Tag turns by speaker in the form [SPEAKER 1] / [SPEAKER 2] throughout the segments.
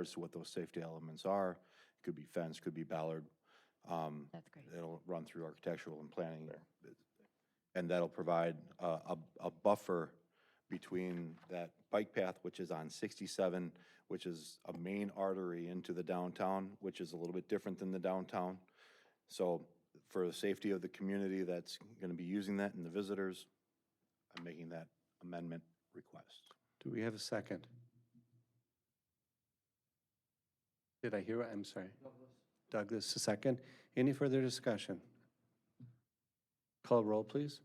[SPEAKER 1] as to what those safety elements are. It could be fence, could be Ballard. Um,
[SPEAKER 2] That's great.
[SPEAKER 1] It'll run through architectural and planning. And that'll provide uh, a, a buffer between that bike path, which is on 67, which is a main artery into the downtown, which is a little bit different than the downtown. So for the safety of the community that's going to be using that and the visitors, I'm making that amendment request.
[SPEAKER 3] Do we have a second? Did I hear, I'm sorry? Douglas, a second. Any further discussion? Call roll, please.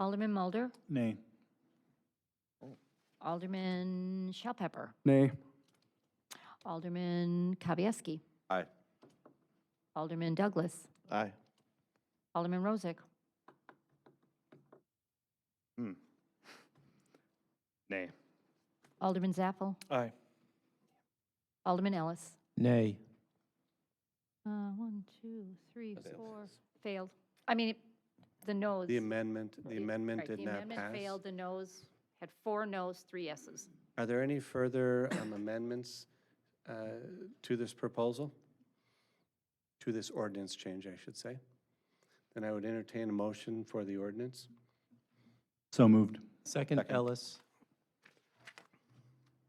[SPEAKER 2] Alderman Mulder,
[SPEAKER 4] Nay.
[SPEAKER 2] Alderman Shellpepper,
[SPEAKER 4] Nay.
[SPEAKER 2] Alderman Kavieski,
[SPEAKER 1] Aye.
[SPEAKER 2] Alderman Douglas,
[SPEAKER 1] Aye.
[SPEAKER 2] Alderman Rozak,
[SPEAKER 3] Hmm.
[SPEAKER 4] Nay.
[SPEAKER 2] Alderman Zappel,
[SPEAKER 4] Aye.
[SPEAKER 2] Alderman Ellis.
[SPEAKER 4] Nay.
[SPEAKER 2] Uh, One, two, three, four, failed. I mean, the noes.
[SPEAKER 3] The amendment, the amendment
[SPEAKER 2] Right,
[SPEAKER 3] did
[SPEAKER 2] the
[SPEAKER 3] not
[SPEAKER 2] amendment
[SPEAKER 3] pass.
[SPEAKER 2] failed, the noes, had four noes, three yeses.
[SPEAKER 3] Are there any further um, amendments uh, to this proposal? To this ordinance change, I should say? Then I would entertain a motion for the ordinance.
[SPEAKER 4] So moved.
[SPEAKER 5] Second, Ellis.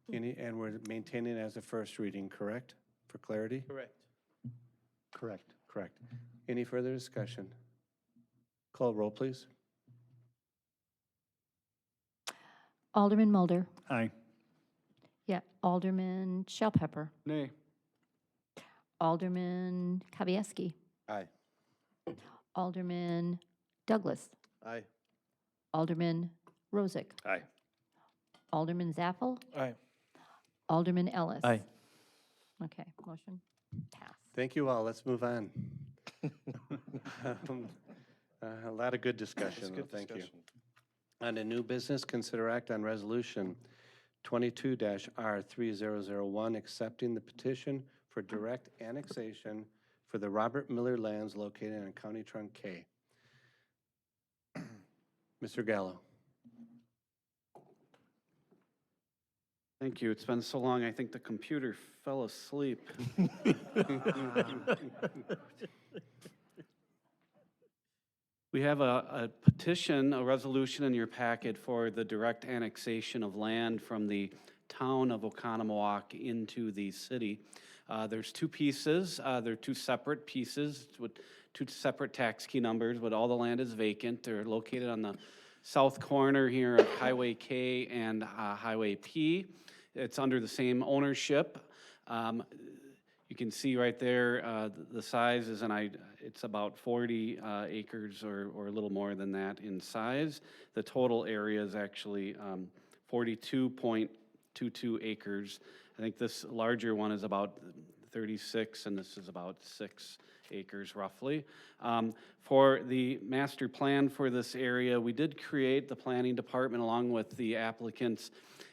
[SPEAKER 2] Hmm.
[SPEAKER 3] Any, and we're maintaining it as a first reading, correct? For clarity?
[SPEAKER 5] Correct.
[SPEAKER 4] Correct.
[SPEAKER 3] Correct. Any further discussion? Call roll, please.
[SPEAKER 2] Alderman Mulder,
[SPEAKER 4] Aye.
[SPEAKER 2] yeah, Alderman Shellpepper,
[SPEAKER 4] Nay.
[SPEAKER 2] Alderman Kavieski,
[SPEAKER 1] Aye.
[SPEAKER 2] Alderman Douglas,
[SPEAKER 1] Aye.
[SPEAKER 2] Alderman Rozak,
[SPEAKER 4] Aye.
[SPEAKER 2] Alderman Zappel,
[SPEAKER 4] Aye.
[SPEAKER 2] Alderman Ellis.
[SPEAKER 5] Aye.
[SPEAKER 2] Okay, motion passed.
[SPEAKER 3] Thank you all. Let's move on. Um, uh, A lot of good discussion, though. thank you. On a new business, consider act on resolution 22-R3001, accepting the petition for direct annexation for the Robert Miller lands located on County Trunk K. Mr. Gallo.
[SPEAKER 6] Thank you. It's been so long, I think the computer fell asleep. We have a a petition, a resolution in your packet for the direct annexation of land from the town of Oconomowoc into the city. Uh, There's two pieces, uh, they're two separate pieces with two separate tax key numbers, but all the land is vacant. They're located on the south corner here of Highway K and uh, Highway P. It's under the same ownership. Um, you can see right there, uh, th- the size is, and I, it's about 40 uh, acres or, or a little more than that in size. The total area is actually um, 42.22 acres. I think this larger one is about 36, and this is about six acres roughly. Um, For the master plan for this area, we did create, the planning department along with the applicants,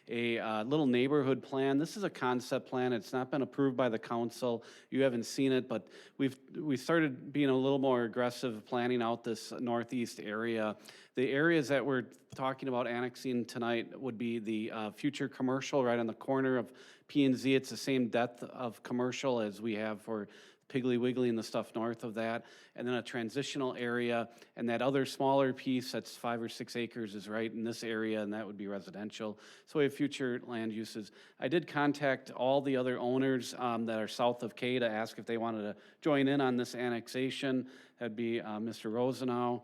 [SPEAKER 6] a uh, little neighborhood plan. This is a concept plan, it's not been approved by the council, you haven't seen it, but we've, we started being a little more aggressive planning out this northeast area. The areas that we're talking about annexing tonight would be the uh, future commercial right on the corner of P and Z. It's the same depth of commercial as we have for Piggly Wiggly and the stuff north of that, and then a transitional area, and that other smaller piece that's five or six acres is right in this area, and that would be residential. So we have future land uses. I did contact all the other owners um, that are south of K to ask if they wanted to join in on this annexation. That'd be uh, Mr. Rosenau,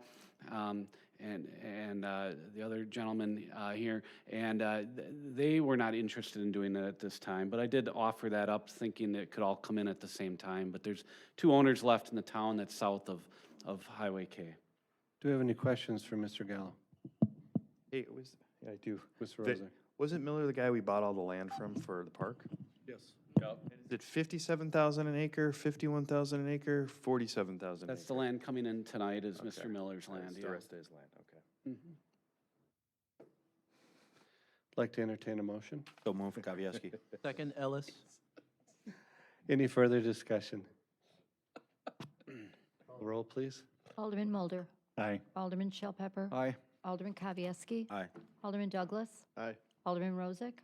[SPEAKER 6] um, and, and uh, the other gentleman uh, here, and uh, th- they were not interested in doing that at this time, but I did offer that up, thinking it could all come in at the same time, but there's two owners left in the town that's south of, of Highway K.
[SPEAKER 3] Do we have any questions for Mr. Gallo?
[SPEAKER 7] Hey, was, yeah, I do.
[SPEAKER 3] Mr.
[SPEAKER 7] The-
[SPEAKER 3] Rosen.
[SPEAKER 7] Wasn't Miller the guy we bought all the land from for the park?
[SPEAKER 6] Yes.
[SPEAKER 7] Is it fifty-seven thousand an acre, fifty-one thousand an acre, forty-seven thousand an
[SPEAKER 6] That's
[SPEAKER 7] acre?
[SPEAKER 6] the land coming in tonight is Mr. Miller's land,
[SPEAKER 7] That's
[SPEAKER 6] yeah.
[SPEAKER 7] The rest of his land, okay.
[SPEAKER 3] Like to entertain a motion?
[SPEAKER 1] So move, Kavieski.
[SPEAKER 5] Second, Ellis.
[SPEAKER 3] Any further discussion? Roll, please.
[SPEAKER 2] Alderman Mulder,
[SPEAKER 4] Aye.
[SPEAKER 2] Alderman Shellpepper,
[SPEAKER 4] Aye.
[SPEAKER 2] Alderman Kavieski,
[SPEAKER 1] Aye.
[SPEAKER 2] Alderman Douglas,
[SPEAKER 7] Aye.
[SPEAKER 2] Alderman Rozak,